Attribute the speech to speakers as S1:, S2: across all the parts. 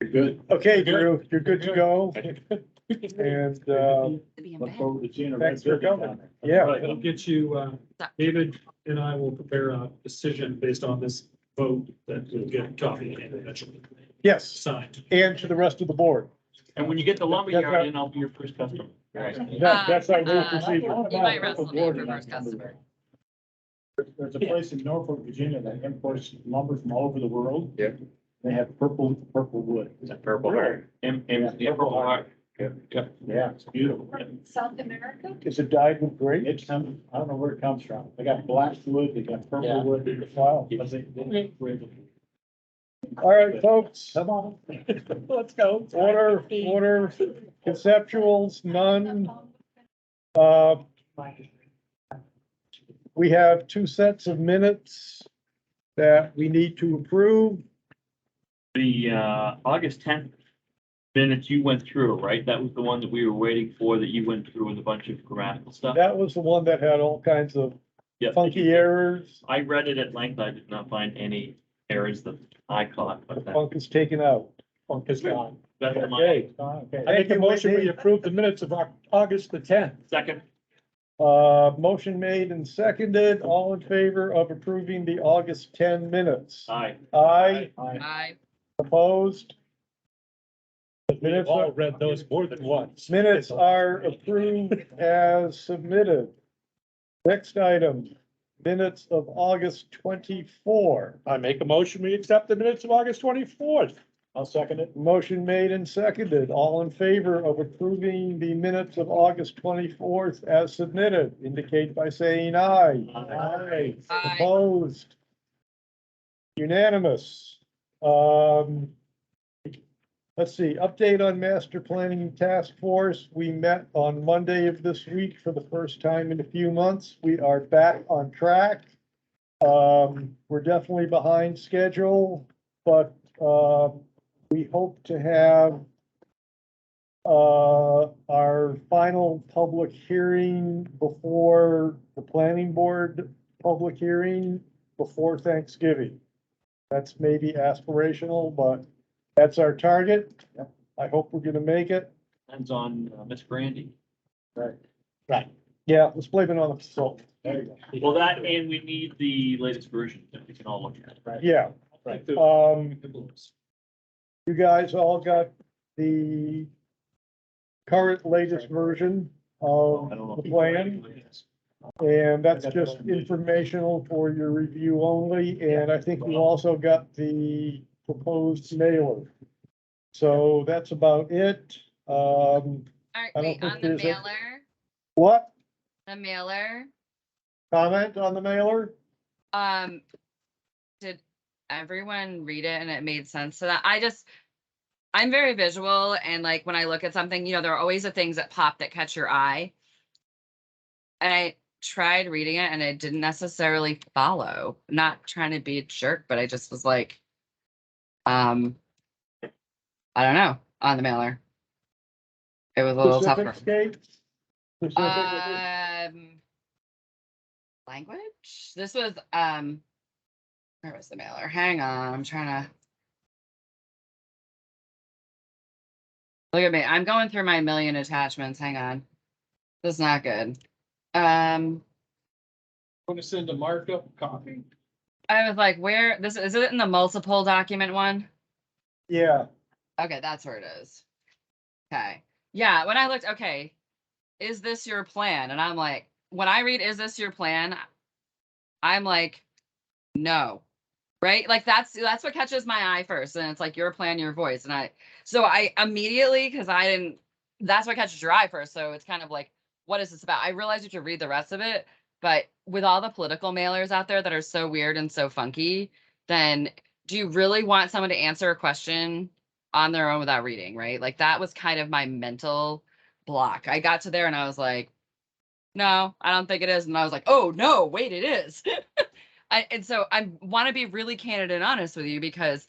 S1: You're good.
S2: Okay, Drew, you're good to go and, uh,
S3: Being
S1: Look
S3: bad.
S1: forward to seeing a
S2: Thanks
S1: red
S2: for
S1: building
S2: coming.
S1: down there.
S2: yeah,
S4: Right, I'll get you, uh, David and I will prepare a decision based on this vote that we'll get copied and eventually
S2: yes,
S4: signed.
S2: and to the rest of the board.
S5: And when you get the
S2: That's
S5: lumberyard
S2: right.
S5: in, I'll be your first customer.
S2: That- That's our new
S3: Uh, uh,
S2: procedure.
S3: You might wrestle me for first customer.
S1: There's- There's a place in Norfolk, Virginia that imports lumber from all over the world.
S5: Yeah.
S1: They have purple, purple wood.
S5: Purple heart. And,
S1: Yeah,
S5: and the purple heart.
S1: Yeah, it's beautiful.
S6: South America?
S2: Is it dyed with gray?
S1: It comes, I don't know where it comes from. They got black wood, they got
S5: Yeah.
S1: purple wood.
S2: Wow.
S1: But they- they-
S2: All right, folks,
S1: Come on.
S2: let's go. Order, order, conceptuals, none.
S6: Um,
S2: Uh, we have two sets of minutes that we need to approve.
S5: The, uh, August tenth minutes you went through, right? That was the one that we were waiting for, that you went through with a bunch of grammatical stuff.
S2: That was the one that had all kinds of
S5: Yeah.
S2: funky errors.
S5: I read it at length. I did not find any errors that I caught,
S2: The
S5: but that,
S2: funk is taken out.
S4: Funk is gone.
S5: that's my
S1: Okay. okay.
S4: I make a motion, we approve the minutes of Oc- August the tenth.
S5: second.
S2: Uh, motion made and seconded, all in favor of approving the August ten minutes.
S5: Aye.
S2: Aye,
S1: Aye.
S3: I,
S2: opposed? Minutes are,
S4: All read those more than once.
S2: minutes are approved as submitted. Next item, minutes of August twenty-four.
S4: I make a motion, we accept the minutes of August twenty-fourth.
S1: I'll second it.
S2: Motion made and seconded, all in favor of approving the minutes of August twenty-fourth as submitted, indicate by saying aye.
S1: Aye.
S3: I,
S2: Opposed? Unanimous. Um, let's see, update on master planning task force. We met on Monday of this week for the first time in a few months. We are back on track. Um, we're definitely behind schedule, but, uh, we hope to have uh, our final public hearing before the planning board public hearing before Thanksgiving. That's maybe aspirational, but that's our target. I hope we're gonna make it.
S5: Depends on uh, Miss Brandy.
S2: Yeah, let's blame it on the consultant.
S1: There you go.
S5: Well, that, and we need the latest version that we can all look at.
S2: Yeah,
S4: Right.
S2: um, you guys all got the current latest version of
S5: I don't know
S2: the
S5: if you-
S2: plan. And that's just informational for your review only, and I think we also got the proposed mailer. So that's about it. Um,
S3: alright,
S2: I don't
S3: wait,
S2: think
S3: on the
S2: there's a-
S3: mailer,
S2: what?
S3: the mailer,
S2: Comment on the mailer?
S3: um, did everyone read it and it made sense to that? I just, I'm very visual and like when I look at something, you know, there are always the things that pop that catch your eye. And I tried reading it and it didn't necessarily follow, not trying to be a jerk, but I just was like, um, I don't know, on the mailer. It was a little tougher.
S2: Pacific Scape? Pacific-
S3: Um, language. This was um, where was the mailer? Hang on, I'm trying to. Look at me. I'm going through my million attachments. Hang on. This is not good. Um,
S1: Want to send a markup copy?
S3: I was like, where this is it in the multiple document one?
S2: Yeah,
S3: Okay, that's where it is. Okay. Yeah, when I looked, okay, is this your plan? And I'm like, when I read, is this your plan? I'm like, no. Right? Like that's that's what catches my eye first. And it's like your plan, your voice. And I so I immediately, because I didn't that's what catches your eye first. So it's kind of like, what is this about? I realized you could read the rest of it, but with all the political mailers out there that are so weird and so funky, then do you really want someone to answer a question on their own without reading, right? Like that was kind of my mental block. I got to there and I was like, no, I don't think it is. And I was like, oh no, wait, it is. I, and so I want to be really candid and honest with you because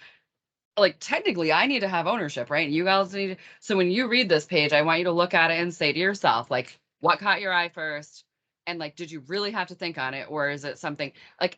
S3: like technically I need to have ownership, right? You guys need so when you read this page, I want you to look at it and say to yourself, like, what caught your eye first? And like, did you really have to think on it? Or is it something like